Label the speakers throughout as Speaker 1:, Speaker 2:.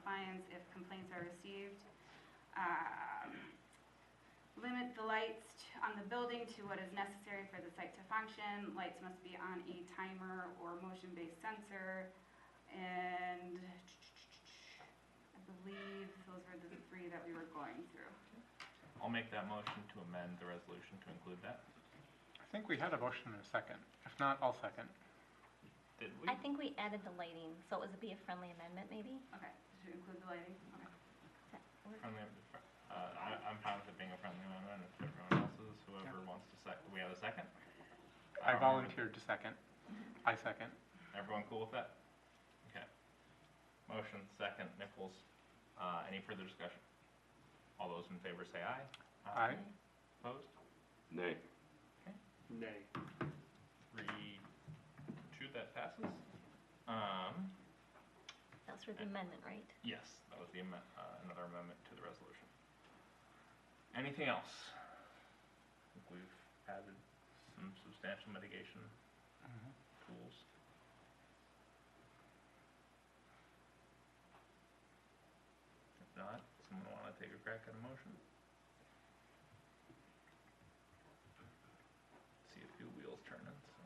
Speaker 1: plans if complaints are received. Um, Limit the lights t- on the building to what is necessary for the site to function. Lights must be on a timer or motion-based sensor. And I believe those were the three that we were going through.
Speaker 2: I'll make that motion to amend the resolution to include that.
Speaker 3: I think we had a motion and a second. If not, I'll second.
Speaker 2: Did we?
Speaker 4: I think we added the lighting, so it would be a friendly amendment, maybe?
Speaker 1: Okay, to include the lighting, okay.
Speaker 4: Does that work?
Speaker 2: Friendly, uh, I, I'm fine with it being a friendly amendment if everyone else is, whoever
Speaker 3: Yeah.
Speaker 2: wants to sec, we have a second?
Speaker 3: I
Speaker 2: Um,
Speaker 3: volunteered to second.
Speaker 4: Mm-hmm.
Speaker 3: I second.
Speaker 2: Everyone cool with that? Okay. Motion, second, Nichols. Uh, any further discussion? All those in favor say aye.
Speaker 3: Aye.
Speaker 2: Opposed?
Speaker 5: Nay.
Speaker 6: Nay.
Speaker 2: Three, two, that passes. Um,
Speaker 4: That was for the amendment, right?
Speaker 2: yes, that was the amendment, uh, another amendment to the resolution. Anything else? I think we've added some substantial mitigation
Speaker 3: Mhm.
Speaker 2: tools. If not, someone want to take a crack at a motion? See a few wheels turning, so.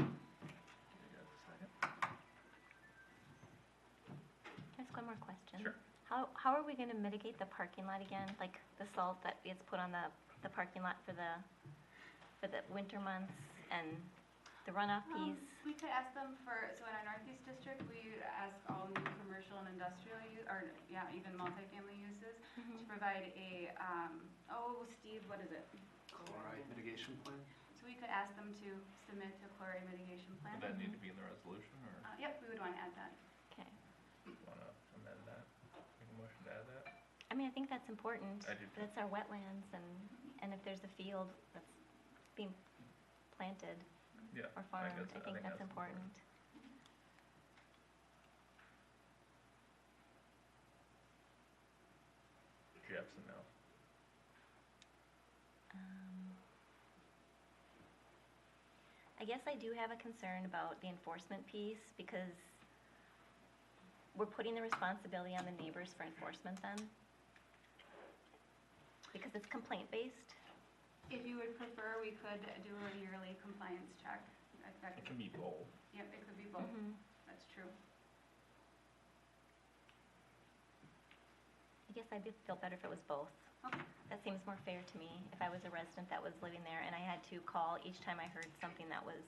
Speaker 2: You got a second?
Speaker 4: Can I ask one more question?
Speaker 2: Sure.
Speaker 4: How, how are we going to mitigate the parking lot again? Like the salt that gets put on the, the parking lot for the, for the winter months and the runoff
Speaker 1: Um,
Speaker 4: piece?
Speaker 1: We could ask them for, so in our Northeast District, we ask all new commercial and industrial use, or, yeah, even multifamily uses to provide a, um, oh, Steve, what is it?
Speaker 6: Chloride mitigation plan?
Speaker 1: So we could ask them to submit a chloride mitigation plan.
Speaker 2: Would that need to be in the resolution, or
Speaker 1: Uh, Yep, we would want to add that.
Speaker 4: Okay.
Speaker 2: want to amend that? Make a motion to add that?
Speaker 4: I mean, I think that's important.
Speaker 2: I do too.
Speaker 4: That's our wetlands and, and if there's a field that's being planted
Speaker 2: Yeah.
Speaker 4: or farmed, I think that's important.
Speaker 2: Jeff's a no.
Speaker 4: Um, I guess I do have a concern about the enforcement piece because we're putting the responsibility on the neighbors for enforcement then? Because it's complaint-based?
Speaker 1: If you would prefer, we could do a yearly compliance check. That- that
Speaker 2: It
Speaker 1: could-
Speaker 2: can be bold.
Speaker 1: Yep, it could be both,
Speaker 4: Mm-hmm. I
Speaker 1: that's true.
Speaker 4: guess I'd be- feel better if it was both.
Speaker 1: Okay.
Speaker 4: That seems more fair to me, if I was a resident that was living there and I had to call each time I heard something that was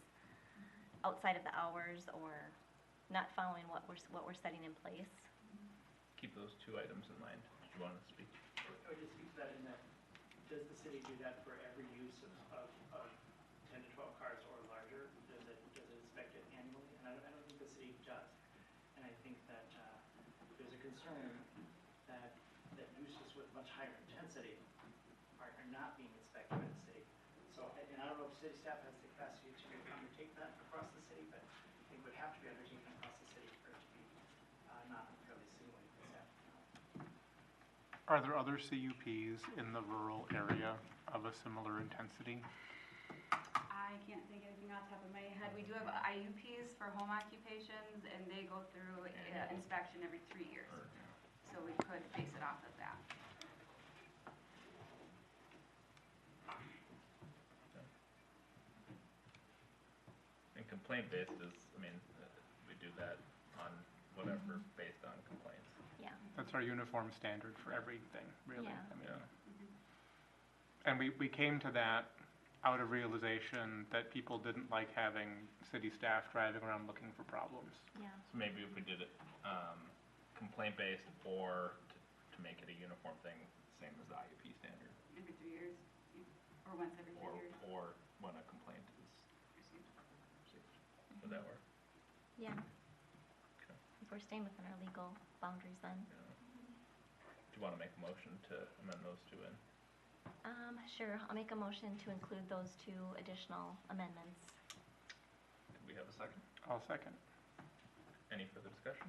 Speaker 4: outside of the hours or not following what we're, s- what we're setting in place.
Speaker 2: Keep those two items in mind. Did you want to speak?
Speaker 7: Or just keep that in that, does the city do that for every use of, of, of ten to twelve cars or larger? Does it, does it inspect it annually? And I don't, I don't think the city does. And I think that, uh, there's a concern that, that uses with much higher intensity are, are not being inspected by the city. So, and and I don't know if city staff has the capacity to undertake that across the city, but it would have to be undertaken across the city for it to be, uh, not fairly similar to that.
Speaker 3: Are there other CUPs in the rural area of a similar intensity?
Speaker 1: I can't think of anything off the top of my head. We do have IUPs for home occupations, and they go through uh, inspection every three years.
Speaker 2: Or-
Speaker 1: So we could base it off of that.
Speaker 2: And complaint-based is, I mean, uh, we do that on whatever,
Speaker 3: Mm-hmm.
Speaker 2: based on complaints.
Speaker 4: Yeah.
Speaker 3: That's our uniform standard for everything, really.
Speaker 4: Yeah.
Speaker 3: I mean,
Speaker 2: Yeah.
Speaker 1: Mm-hmm.
Speaker 3: And we, we came to that out of realization that people didn't like having city staff driving around looking for problems.
Speaker 4: Yeah.
Speaker 2: So maybe if we did it um, complaint-based or t- to make it a uniform thing, same as the IUP standard,
Speaker 1: Every three years, or once every
Speaker 2: or,
Speaker 1: three years.
Speaker 2: or when a complaint is received. Would that work?
Speaker 4: Yeah.
Speaker 2: Okay.
Speaker 4: If we're staying within our legal boundaries then.
Speaker 2: Yeah. Do you want to make a motion to amend those two in?
Speaker 4: Um, sure, I'll make a motion to include those two additional amendments.
Speaker 2: Did we have a second?
Speaker 3: I'll second.
Speaker 2: Any further discussion?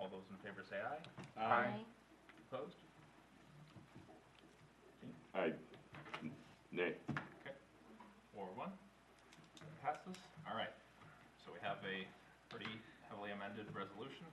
Speaker 2: All those in favor say aye.
Speaker 4: Aye.
Speaker 2: Opposed?
Speaker 5: I, nay.
Speaker 2: Four one. Passes. All right. So we have a pretty heavily amended resolution.